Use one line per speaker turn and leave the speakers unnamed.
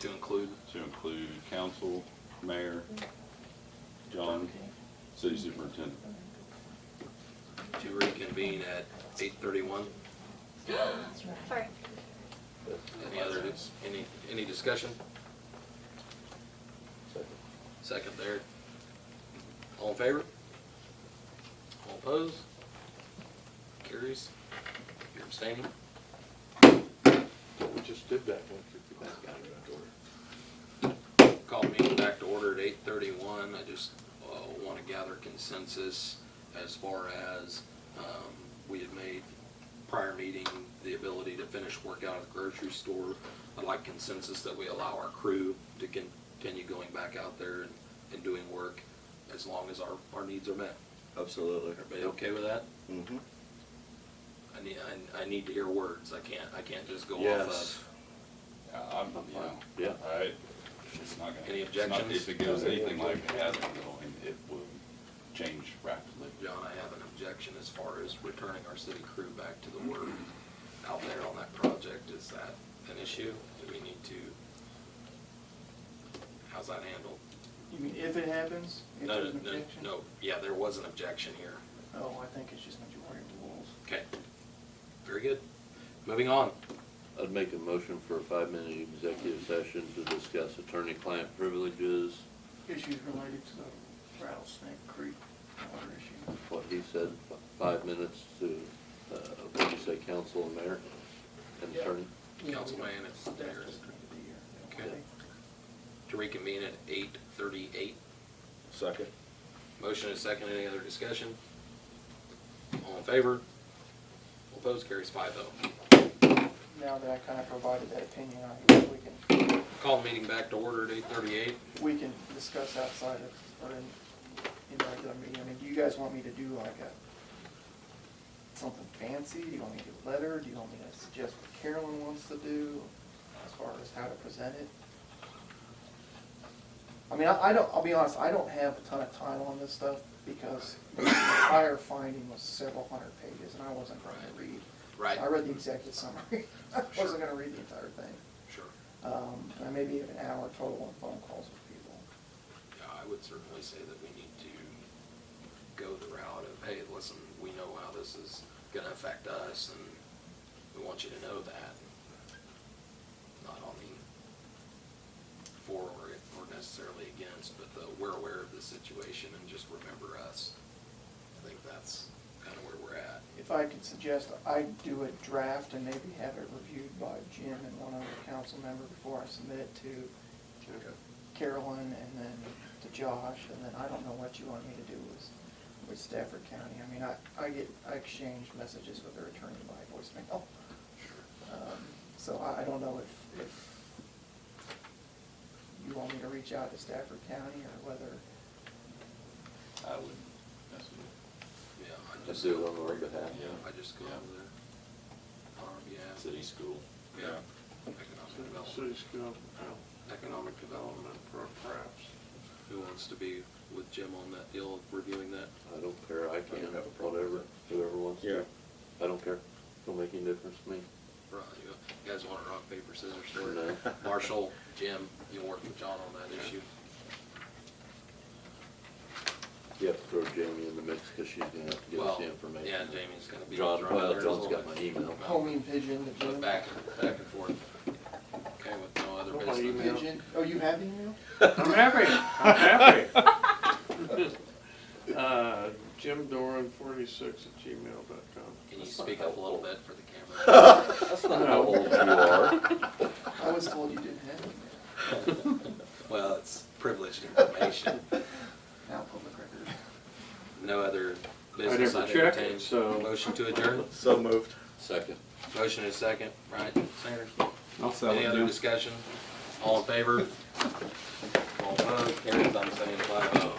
to include.
to include council, mayor, John, city superintendent.
to reconvene at eight thirty-one.
Sorry.
Any other, any, any discussion?
uh,
Second there. All in favor? All opposed? Carries? You're abstaining?
We just did that one. That's gotta go to order.
Call meeting back to order at eight thirty-one. I just, uh, wanna gather consensus as far as, um, we had made prior meeting, the ability to finish work out at the grocery store. I'd like consensus that we allow our crew to continue going back out there and, and doing work as long as our, our needs are met.
Absolutely.
Everybody okay with that?
Mhm.
I need, I, I need to hear words. I can't, I can't just go off
Yes.
of.
I- I'm, you know,
Yeah.
I, it's not gonna.
Any
it's not-
objections?
If it goes anything like it has been going, it will change rapidly.
John, I have an objection as far as returning our city crew back to the work out there on that project. Is that an issue? Do we need to? How's that handled?
You mean if it happens? If
No,
there's an
no,
objection?
No, yeah, there was an objection here.
Oh, I think it's just majority rules.
Okay. Very good. Moving on.
I'd make a motion for a five-minute executive session to discuss attorney-client privileges,
Issues related to the Rattlesnake Creek water issue.
what he said, f- five minutes to, uh, what do you say, council and mayor and attorney?
Councilman, it's
That's
there.
just gonna be here.
Okay. To reconvene at eight thirty-eight.
Second.
Motion is second. Any other discussion? All in favor? Opposed? Carries five oh.
Now that I kind of provided that opinion, I guess we can,
Call meeting back to order at eight thirty-eight.
we can discuss outside of, or in, in regular meeting. I mean, do you guys want me to do like a, something fancy? Do you want me to get a letter? Do you want me to suggest what Carolyn wants to do as far as how to present it? I mean, I, I don't, I'll be honest, I don't have a ton of time on this stuff because the entire finding was several hundred pages and I wasn't going to read.
Right.
I read the executive summary. I
Sure.
wasn't gonna read the entire thing.
Sure.
Um, and maybe an hour total on phone calls with people.
Yeah, I would certainly say that we need to go the route of, hey, listen, we know how this is gonna affect us and we want you to know that. Not on the for or or necessarily against, but the, we're aware of the situation and just remember us. I think that's kinda where we're at.
If I could suggest, I'd do a draft and maybe have it reviewed by Jim and one other council member before I submit it to Carolyn and then to Josh, and then I don't know what you want me to do with, with Stafford County. I mean, I, I get, I exchange messages with their attorney by voicemail. Um, So I, I don't know if, if you want me to reach out to Stafford County or whether,
I would, that's what,
Yeah, I
Just
just,
do it on our behalf.
I just go over there. Um, yeah,
city school.
yeah, economic development.
City School,
economic development,
perhaps.
who wants to be with Jim on that deal, reviewing that?
I don't care, I can,
don't have a problem with
whatever, whoever wants to. I don't care, don't make any difference to me.
Right, you guys want to rock, paper, scissors, story?
No.
Marshall, Jim, you'll work with John on that issue.
You have to throw Jamie in the mix, because she's gonna have to give us
Well,
the information.
yeah, Jamie's gonna be.
John,
thrown in
well,
there a
John's
little
got
bit.
my email.
homing pigeon, the
But
Jim.
back, and- back and forth. Okay, with no other
Oh, my
business.
email.
Pigeon, oh, you have the email?
I'm happy, I'm happy. Uh, Jim Doran, forty-six at gmail dot com.
Can you speak up a little bit for the camera?
That's not how old you are.
I was told you didn't have uh, it.
Well, it's privileged information.
Now public record.
No other business.
never
I'd
check it,
entertain.
so-
Motion to adjourn.
So moved.
Second.
Motion is second. Right, Sanders?
I'll
Any other discussion? All in favor? All opposed? Carries, I'm saying five oh.